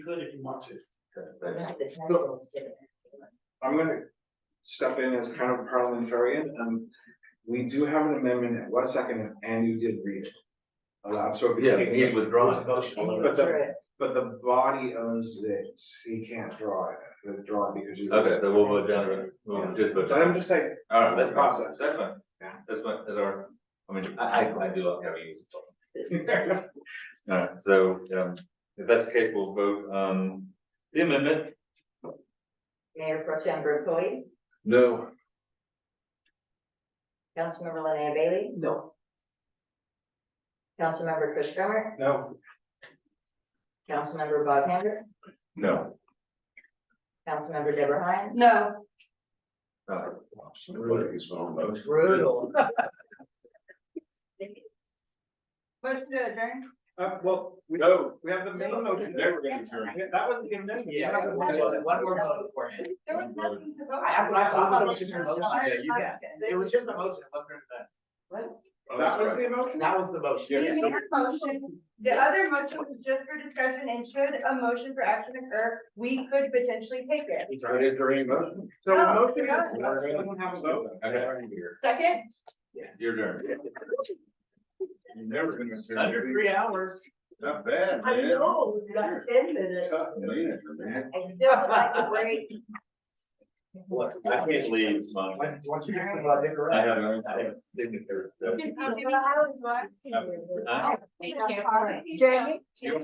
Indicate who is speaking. Speaker 1: Good if you want to.
Speaker 2: Right, the
Speaker 1: Go.
Speaker 2: titles, yeah.
Speaker 3: I'm gonna step in as kind of parliamentarian, and we do have an amendment that was seconded, and you did read it. Uh, so. it
Speaker 4: Yeah,
Speaker 3: became-
Speaker 4: he's withdrawn.
Speaker 2: And
Speaker 3: But
Speaker 2: you
Speaker 3: the-
Speaker 2: drew it.
Speaker 3: But the body owns it, he can't draw it, withdraw it because you.
Speaker 4: Okay, so we'll vote down, to- we'll just vote.
Speaker 3: But I'm just saying,
Speaker 4: All right, that's fine,
Speaker 3: Process.
Speaker 4: that's fine,
Speaker 3: Yeah.
Speaker 4: that's fine, that's our, I mean, I, I, I do love having you.
Speaker 3: yeah,
Speaker 4: All right, so, um, if that's the case, we'll vote, um, the amendment.
Speaker 2: Mayor Pro Tem Brinkley,
Speaker 4: No.
Speaker 2: Councilmember Linnea Bailey,
Speaker 1: No.
Speaker 2: Councilmember Chris Grummer,
Speaker 3: no,
Speaker 2: Councilmember Bob Hander,
Speaker 4: No.
Speaker 2: Councilmember Deborah Hines.
Speaker 5: No,
Speaker 2: Brutal.
Speaker 5: motion to adjourn.
Speaker 3: uh, well, we,
Speaker 4: No.
Speaker 3: we have the main motion.
Speaker 4: Never gonna turn.
Speaker 3: Yeah, That was the amendment.
Speaker 1: Yeah, one more- one more vote for it.
Speaker 5: There was nothing to vote.
Speaker 1: I- I- I- I- I- Yeah, you
Speaker 5: I-
Speaker 1: It was just a motion, it wasn't an amendment.
Speaker 3: That was the
Speaker 1: What?
Speaker 3: motion.
Speaker 1: That was the motion.
Speaker 5: We made a motion. The other motion was just for discussion and should a motion for action occur, we could potentially take it.
Speaker 4: It is during motion.
Speaker 3: So the
Speaker 5: No,
Speaker 3: motion
Speaker 5: no.
Speaker 3: is, we don't have a vote.
Speaker 4: Okay.
Speaker 5: Second,
Speaker 4: Your turn. You're never gonna. turn.
Speaker 1: Under three hours.
Speaker 4: Not bad,
Speaker 2: I
Speaker 4: man.
Speaker 2: know, we got ten minutes.
Speaker 4: Tough, man, man.
Speaker 2: I still would like to wait.
Speaker 4: Look, I can't leave my,
Speaker 1: Once once you get some of that liquor
Speaker 4: I
Speaker 1: out.
Speaker 4: have, I have signators. so-
Speaker 5: you can come to the house, what?
Speaker 4: Huh?
Speaker 5: Policy, Jamie?